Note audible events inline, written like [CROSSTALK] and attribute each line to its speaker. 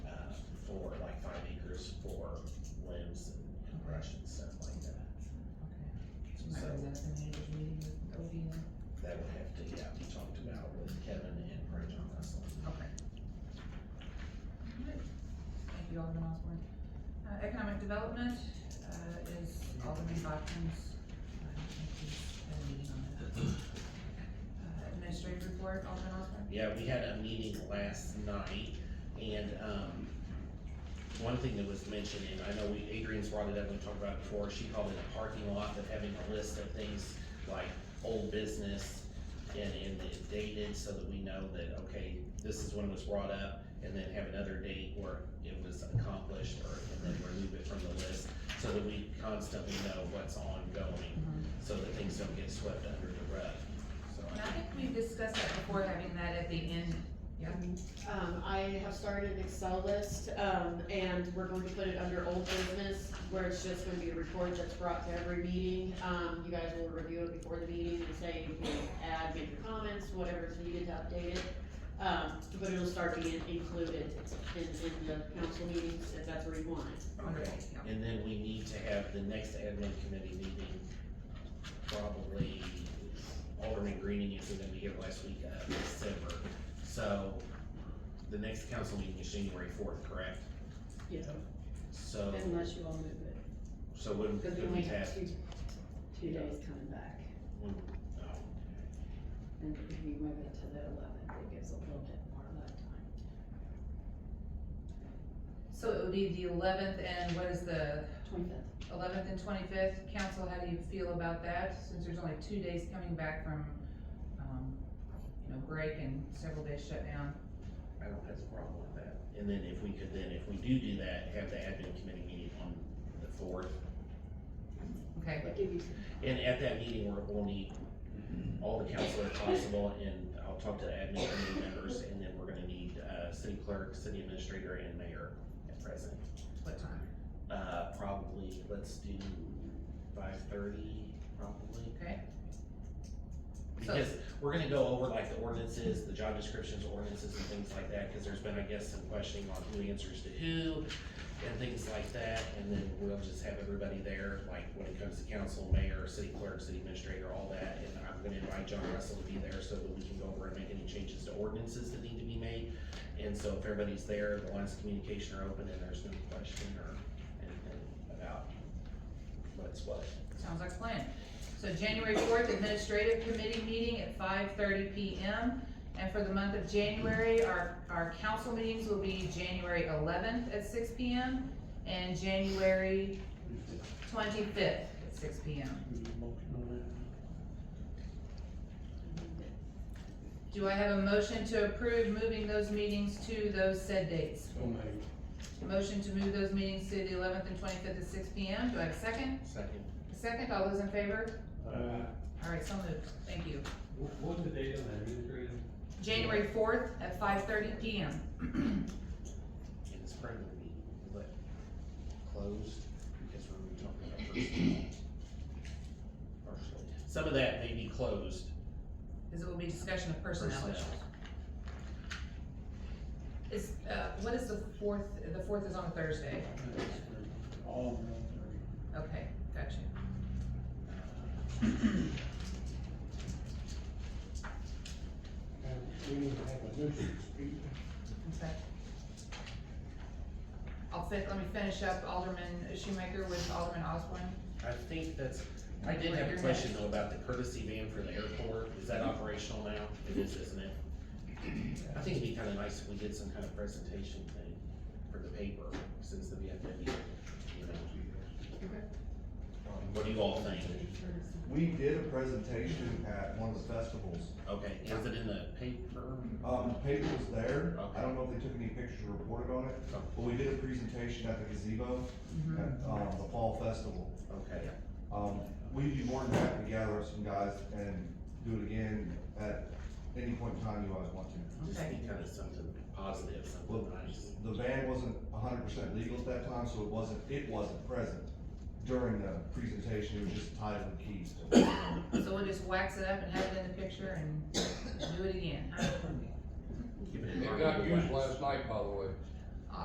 Speaker 1: uh,
Speaker 2: at the manager's meeting with Odina?
Speaker 1: That would have to, yeah, be talked about with Kevin and Rajon Russell.
Speaker 2: Okay. Alright. Thank you, Alderman Osborne. Uh, economic development, uh, is Alderman Bodkins. Uh, I think he's had a meeting on that. Uh, administrative report, Alderman Osborne?
Speaker 1: Yeah, we had a meeting last night, and, um, one thing that was mentioned, and I know we, Adrian's brought it up, we talked about it before, she called it a parking lot, but having a list of things like old business and, and it dated, so that we know that, okay, this is when it was brought up, and then have another date where it was accomplished, or, and then remove it from the list, so that we constantly know what's ongoing, so that things don't get swept under the rug, so.
Speaker 2: And I think we discussed that before, having that at the end.
Speaker 3: Um, I have started an Excel list, um, and we're going to put it under old business, where it's just gonna be a report that's brought to every meeting. Um, you guys will review it before the meeting and say, you know, add, make your comments, whatever's needed to update it. Um, but it'll start being included in, in the council meetings, if that's where you want it.
Speaker 1: Okay, and then we need to have the next admin committee meeting, probably Alderman Greening is gonna be here last week, uh, December. So, the next council meeting is January fourth, correct?
Speaker 3: Yeah.
Speaker 1: So,
Speaker 4: Unless you all move it,
Speaker 1: so when,
Speaker 4: because we
Speaker 1: when we
Speaker 4: only
Speaker 1: have,
Speaker 4: have two, two days coming back,
Speaker 1: when, oh,
Speaker 4: and if you move it to the eleventh, it gives a little bit more of that time.
Speaker 2: So it would be the eleventh and what is the
Speaker 4: Twenty-fifth,
Speaker 2: eleventh and twenty-fifth? Council, how do you feel about that, since there's only two days coming back from, um, you know, break and several days shutdown?
Speaker 1: I don't have a problem with that. And then if we could then, if we do do that, have the admin committee meeting on the fourth,
Speaker 2: Okay,
Speaker 4: I'll give you
Speaker 1: And at that meeting, we're, we'll need all the council if possible, and I'll talk to the admin committee members, and then we're gonna need, uh, city clerk, city administrator, and mayor at present.
Speaker 2: what time?
Speaker 1: Uh, probably, let's do five thirty, probably.
Speaker 2: Okay. So-
Speaker 1: Because we're gonna go over like the ordinances, the job descriptions, ordinances and things like that, cause there's been, I guess, some questioning on who answers to who and things like that, and then we'll just have everybody there, like when it comes to council, mayor, city clerk, city administrator, all that, and I'm gonna invite John Russell to be there so that we can go over and make any changes to ordinances that need to be made. And so if everybody's there, the lines of communication are open and there's no question or anything about what's what.
Speaker 2: Sounds like a plan. So January fourth, administrative committee meeting at five thirty P M. And for the month of January, our, our council meetings will be January eleventh at six P M. And January twenty-fifth at six P M. Do I have a motion to approve moving those meetings to those said dates?
Speaker 5: So made.
Speaker 2: Motion to move those meetings to the eleventh and twenty-fifth at six P M. Do I have a second?
Speaker 1: Second,
Speaker 2: A second, all those in favor?
Speaker 5: Uh,
Speaker 2: All right, so moved. Thank you.
Speaker 5: what what was the date on that administrative?
Speaker 2: January fourth at five thirty P M. [CLEARS THROAT]
Speaker 1: and it's probably gonna be, what, closed, because we're gonna be talking about personally. Personally. Some of that may be closed.
Speaker 2: Because it will be discussion of personnel issues.
Speaker 1: Personnel.
Speaker 2: Is, uh, what is the fourth, the fourth is on a Thursday,
Speaker 5: All
Speaker 2: okay, gotcha.
Speaker 1: Uh,
Speaker 5: We need to have a nuisance meeting.
Speaker 2: Okay. I'll fin, let me finish up Alderman Shoemaker with Alderman Osborne.
Speaker 1: I think that's, I did have a question though about the courtesy van for the airport, is that operational now? It is, isn't it? I think it'd be kinda nice if we did some kind of presentation thing for the paper, since the VFW, you know. What do you all think?
Speaker 6: We did a presentation at one of the festivals.
Speaker 1: Okay, is it in the paper?
Speaker 6: Um, the paper was there. I
Speaker 1: Okay.
Speaker 6: don't know if they took any pictures or reported on it,
Speaker 1: Oh.
Speaker 6: but we did a presentation at the gazebo
Speaker 2: Mhm.
Speaker 6: at, um, the fall festival.
Speaker 1: Okay,
Speaker 6: Um, we'd be more than happy to gather up some guys and do it again at any point in time you guys want to.
Speaker 1: just
Speaker 2: Okay.
Speaker 1: be kinda something positive,
Speaker 6: Well,
Speaker 1: something nice.
Speaker 6: the van wasn't hundred percent legal at that time, so it wasn't, it wasn't present during the presentation. It was just tied with keys.
Speaker 2: So we'll just wax it up and have it in the picture and do it again, huh?
Speaker 1: Give it a
Speaker 7: It
Speaker 1: marketable
Speaker 7: got used
Speaker 1: wax.
Speaker 7: last night, by the way.